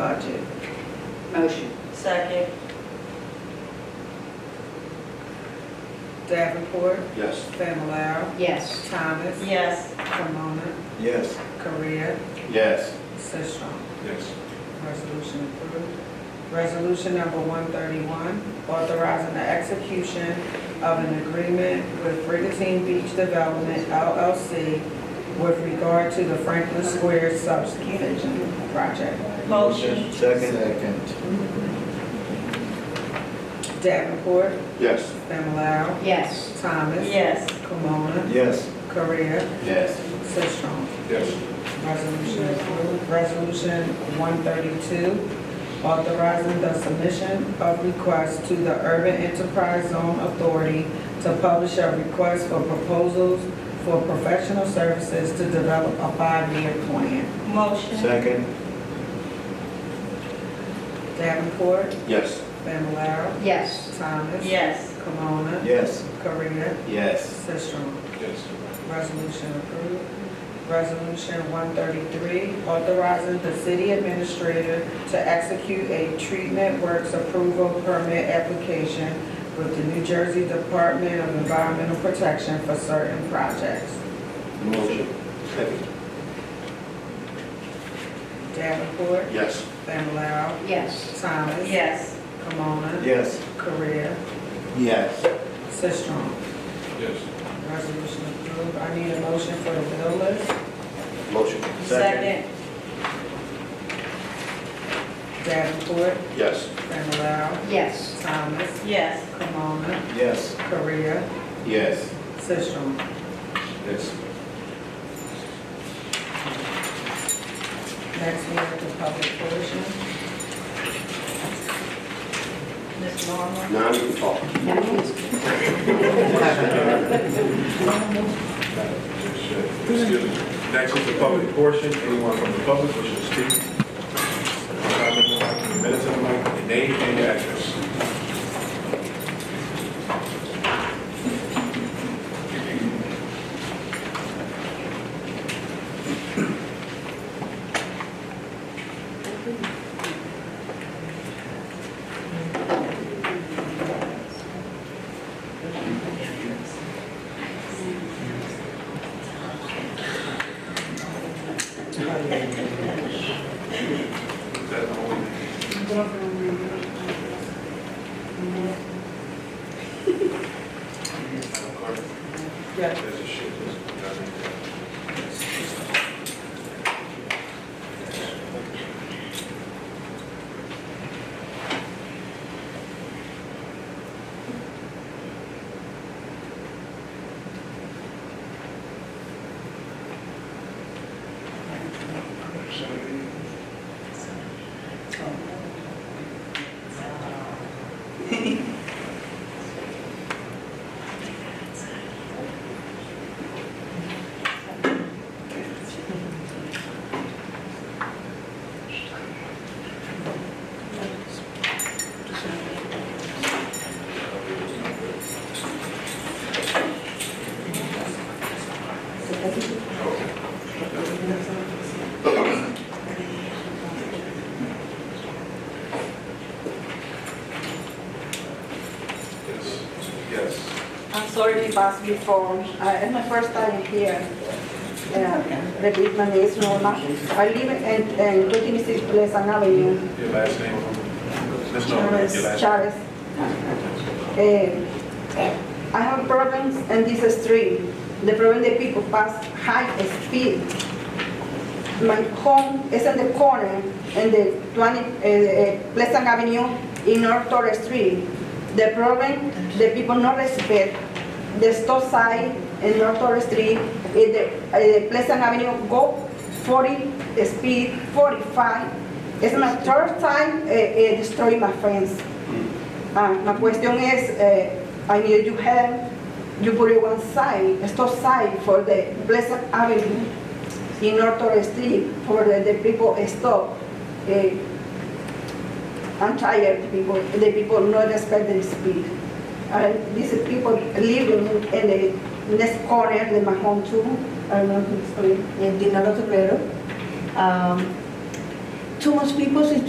budget. Motion. Second. Davenport, Yes. Fama Lara, Yes. Thomas. Yes. Camona, Yes. Korea, Yes. Sisram. Yes. Resolution approved. Resolution number 131, authorizing the execution of an agreement with Brigantine Beach Development LLC with regard to the Franklin Square subdivision project. Motion. Second. Davenport, Yes. Fama Lara, Yes. Thomas. Yes. Camona, Yes. Korea, Yes. Sisram. Yes. Resolution approved. Resolution 132, authorizing the submission of requests to the Urban Enterprise Zone Authority to publish a request for proposals for professional services to develop a five-year plan. Motion. Second. Davenport, Yes. Familar, Yes. Thomas. Yes. Camona, Yes. Korea, Yes. Sisram. Yes. Resolution approved. Resolution 133, authorizing the city administrator to execute a treatment works approval permit application with the New Jersey Department of Environmental Protection for certain projects. Motion. Second. Davenport, Yes. Familar, Yes. Thomas. Yes. Camona, Yes. Korea, Yes. Sistrum. Yes. Resolution approved. I need a motion for the bill list. Motion. Second. Davenport, Yes. Familar, Yes. Thomas. Yes. Camona, Yes. Korea, Yes. Sistrum. Yes. Next, we have the public portion. Ms. Norman. Now you can talk. Excuse me. Next is the public portion. Anyone from the public wishing to speak? Comment, Minutes of the mic, your name and your address. Is that the only? Yeah. There's a shit, there's a dozen. Yes. Yes. I'm sorry if I speak for, uh, it's my first time here. Uh, Repeat my name is Norma. I live in, in 26 Pleasant Avenue, Your last name? Ms. Norman, your last Chavez, Chavez. Uh, I have problems in this street. The problem the people pass high speed. My home is in the corner in the 20, uh, uh, Pleasant Avenue in North Torres Street. The problem, the people not respect the stop sign in North Torres Street, in the, uh, Pleasant Avenue go 40 speed, 45. It's my third time uh, uh, destroying my friends. Ah, my question is, eh, I need you help, you put it one side, stop sign for the Pleasant Avenue in North Torres Street for the, the people stop. Eh, I'm tired, people, the people not respect the speed. And these people living in the next corner in my home too, I don't know, if it's, eh, in Dinalo Torero. Um, Too much people is